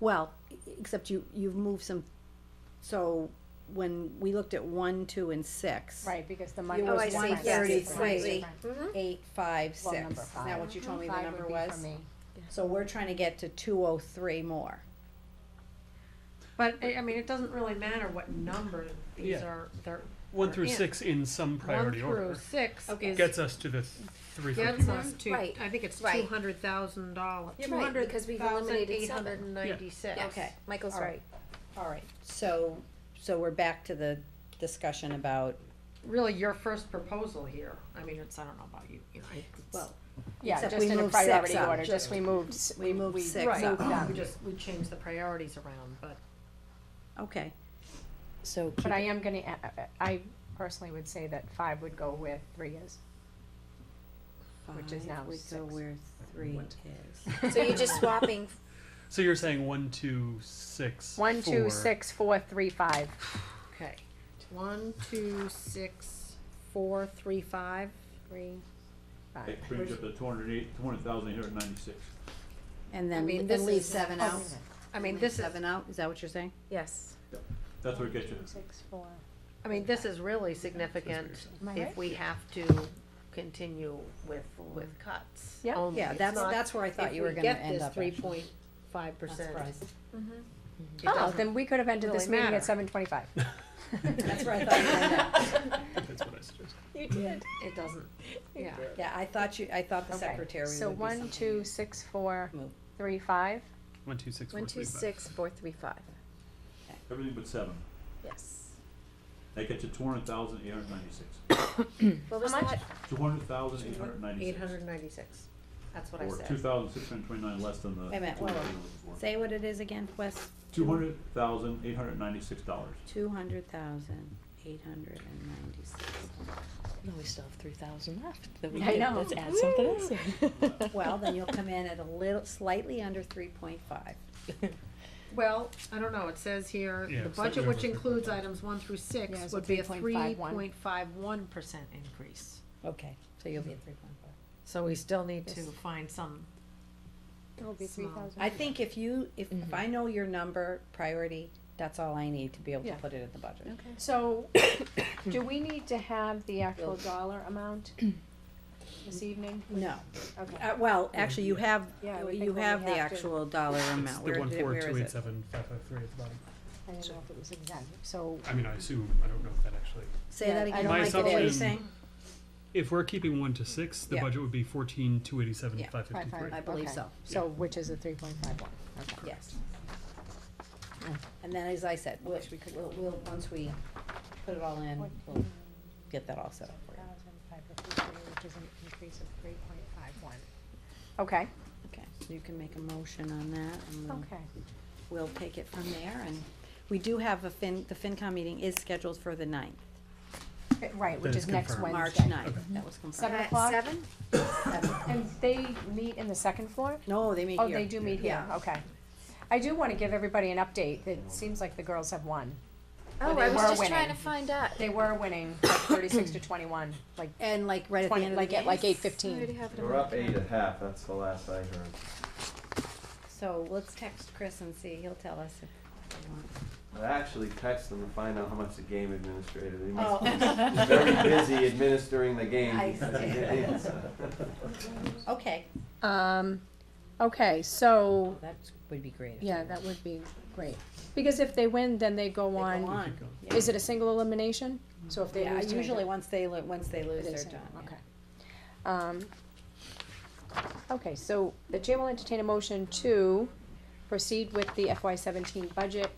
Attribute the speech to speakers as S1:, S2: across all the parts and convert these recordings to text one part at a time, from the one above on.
S1: Well, e- except you, you've moved some, so when we looked at one, two, and six.
S2: Right, because the money
S1: You
S3: Oh,
S2: was
S3: I
S1: was
S3: see.
S1: one
S2: different.
S3: Yes,
S1: thirty
S3: it's right.
S1: three, eight, five,
S2: Well,
S1: six.
S2: number
S1: Is that what you told me the
S2: Five would
S1: number
S2: be
S1: was?
S2: for me.
S1: So we're trying to get to two oh three more.
S4: But, I, I mean, it doesn't really matter what number these
S5: Yeah.
S4: are, they're.
S5: One through
S4: Yeah.
S5: six in some priority
S4: One
S5: order
S4: through six is,
S5: gets us to the three
S4: gets
S5: fifty.
S4: us to,
S3: Right.
S4: I think it's
S3: Right.
S4: two hundred thousand dollars,
S3: You're
S4: two
S3: right,
S4: hundred
S3: because we've
S4: thousand
S3: eliminated
S4: eight
S3: seven.
S4: hundred and ninety-six.
S3: Yes, Michael's
S1: All
S3: right.
S1: All right, so, so we're back to the discussion about,
S4: Really, your first proposal here, I mean, it's, I don't know about you, you know, it's.
S1: well,
S2: Yeah,
S1: Except
S2: just
S1: we
S2: in a
S1: moved six
S2: priority
S1: up.
S2: order, just we moved, s-
S1: we moved
S2: we
S1: six
S4: Right,
S1: up.
S4: we just, we changed the priorities around, but.
S1: Okay. So keep
S2: But I am gonna, a- a- I personally would say that five would go where three is. which is
S1: five,
S2: now
S1: we go
S2: six.
S1: where three is.
S3: So you're just swapping,
S5: So you're saying one, two, six,
S2: One, two,
S5: four.
S2: six, four, three, five.
S4: Okay, one, two, six, four, three, five, three.
S2: Five.
S6: That brings up the two hundred eight, two hundred thousand eight hundred ninety-six.
S1: And
S4: I
S1: then,
S4: mean,
S1: and
S4: this
S1: leave
S4: is-
S1: seven
S4: oh,
S1: out?
S4: I mean,
S1: Leave
S4: this is,
S1: Seven out, is that what you're saying?
S3: yes.
S6: That's where it gets you.
S2: Six, four.
S4: I mean, this is really significant
S2: Am I
S4: if
S2: right?
S4: we have to continue with, with cuts.
S2: Yeah.
S4: only.
S1: Yeah,
S4: It's
S1: that's,
S4: not-
S1: that's where I thought you were gonna end up.
S4: If we get this three
S1: actually.
S4: point five
S1: Not
S4: percent,
S1: surprised.
S4: Mm-hmm. it
S2: Oh,
S4: doesn't-
S2: then we could have ended this
S4: really
S2: meeting
S4: matter.
S2: at seven twenty-five.
S1: That's where I thought you were gonna end up.
S5: That's what I suggested.
S2: You did.
S4: it doesn't, yeah.
S1: Yeah, I thought you, I thought the secretary would be
S2: So one,
S1: something.
S2: two, six, four,
S1: Move.
S2: three, five.
S5: One, two, six, four,
S3: One, two,
S5: three, five.
S3: six, four, three, five.
S6: Everything but seven.
S3: Yes.
S6: That gets you two hundred thousand eight hundred ninety-six.
S3: What was that?
S6: Two hundred thousand eight hundred ninety-six.
S4: Eight hundred ninety-six, that's what I
S6: Or two
S4: said.
S6: thousand six hundred twenty-nine less than the.
S1: Wait a minute, whoa, whoa. Say what it is again, Wes,
S6: Two hundred thousand eight hundred ninety-six dollars.
S1: two hundred thousand, eight hundred and ninety-six.
S7: No, we still have three thousand left. That we
S2: I
S7: could-
S2: know.
S7: Let's add something else. in.
S1: Well, then you'll come in at a little, slightly under three point five.
S4: Well, I don't know, it says here,
S5: Yeah,
S4: the
S5: it's
S4: budget
S5: slightly
S4: which
S5: over
S4: includes items one through
S2: Yeah,
S4: six
S2: it's
S4: would
S2: a
S4: be a three
S2: 3.51.
S4: point five one percent increase.
S1: Okay, so you'll be at three point five.
S4: So we still need to
S2: Yes.
S4: find some,
S2: It'll be
S4: Small.
S2: three thousand.
S1: I think if you, if,
S7: Mm-hmm.
S1: if I know your number, priority, that's all I need to be able to
S2: Yeah.
S1: put it in the budget. Okay.
S2: So, do we need to have the actual dollar amount this evening?
S1: No,
S2: Okay.
S1: uh, well, actually,
S7: Mm-hmm.
S1: you have,
S2: Yeah, I would
S1: you
S2: think when
S1: have
S2: we
S1: the
S2: have to-
S1: actual dollar
S5: It's
S1: amount,
S5: the
S1: where
S5: one,
S1: did,
S5: four,
S1: where
S5: two,
S1: is
S5: eight,
S1: it?
S5: seven, five, five, three at the bottom.
S2: I don't know if it was exact, so,
S5: I mean, I assume, I don't know if that actually.
S1: Say
S2: Yeah,
S1: that
S2: I
S1: again,
S2: don't
S5: My
S1: Mike, what were you
S5: assumption-
S1: saying?
S5: If we're keeping one to six, the
S1: Yeah.
S5: budget would be fourteen, two eighty-seven,
S1: Yeah.
S5: five
S2: Five,
S5: fifty-three.
S1: I believe
S2: Okay.
S1: so,
S2: so which is a three point five one, okay.
S1: yes. And then, as I said, we'll, we could- we'll, we'll, once we put it all in, we'll get that all set up for you.
S2: Which is an increase of three point five one. Okay,
S1: Okay, so you can make a motion on that, and we'll,
S2: okay.
S1: we'll take it from there, and we do have a Fin, the FinCom meeting is scheduled for the ninth,
S2: Uh, Right, which
S5: Then
S2: is
S5: it's
S2: next
S5: confirmed.
S2: Wednesday. Mhm.
S1: March ninth, that was confirmed.
S2: Seven
S3: At
S2: o'clock?
S3: Seven?
S2: And they meet in the second floor?
S1: No, they meet
S2: Oh,
S1: here.
S2: they do meet here,
S1: Yeah.
S2: okay. I do wanna give everybody an update, it seems like the girls have won.
S3: Oh,
S2: they
S3: I was
S2: were
S3: just trying to
S2: winning.
S3: find out.
S2: They were winning, like thirty-six to twenty-one, like
S1: And like right at the
S2: twenty,
S1: end of the
S2: like at
S1: game,
S2: like eight
S3: I already
S2: fifteen.
S3: have it in
S8: We're
S3: my
S8: up eight
S3: calendar.
S8: and a half, that's the last I heard.
S1: so let's text Chris and see, he'll tell us if. we want.
S8: I actually texted them to find out how much the game administrator, they must be
S1: Oh,
S8: very busy administering the game.
S1: I
S8: because
S1: see.
S8: it is, uh,
S1: okay,
S2: Um, okay, so,
S1: that would be great. if
S2: yeah,
S1: they
S2: that would be great, because if they win, then they go
S1: go
S2: on,
S1: on. Yeah.
S2: is it a single elimination? So if they
S1: Yeah,
S2: lose tonight,
S1: usually
S2: they're-
S1: once they, lo- once they lose,
S2: it
S1: they're
S2: is
S1: done. yeah.
S2: Okay. Um, okay, so the chair will entertain a motion to proceed with the FY seventeen budget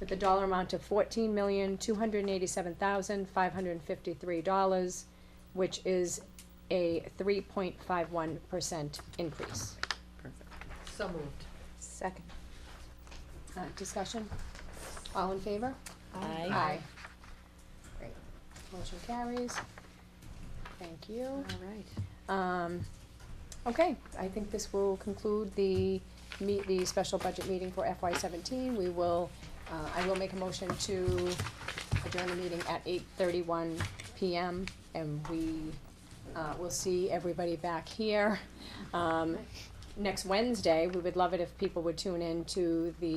S2: with the dollar amount of fourteen million, two hundred and eighty-seven thousand, five hundred and fifty-three dollars, which is a three point five one percent increase.
S1: Perfect.
S4: so moved.
S2: Second. Uh, discussion? All in favor?
S1: Aye.
S2: Great. Motion carries. Thank you.
S1: All right.
S2: Um, okay, I think this will conclude the meet, the special budget meeting for FY seventeen. We will, uh, I will make a motion to adjourn the meeting at eight thirty-one PM and we, uh, will see everybody back here. Um, next Wednesday, we would love it if people would tune in to the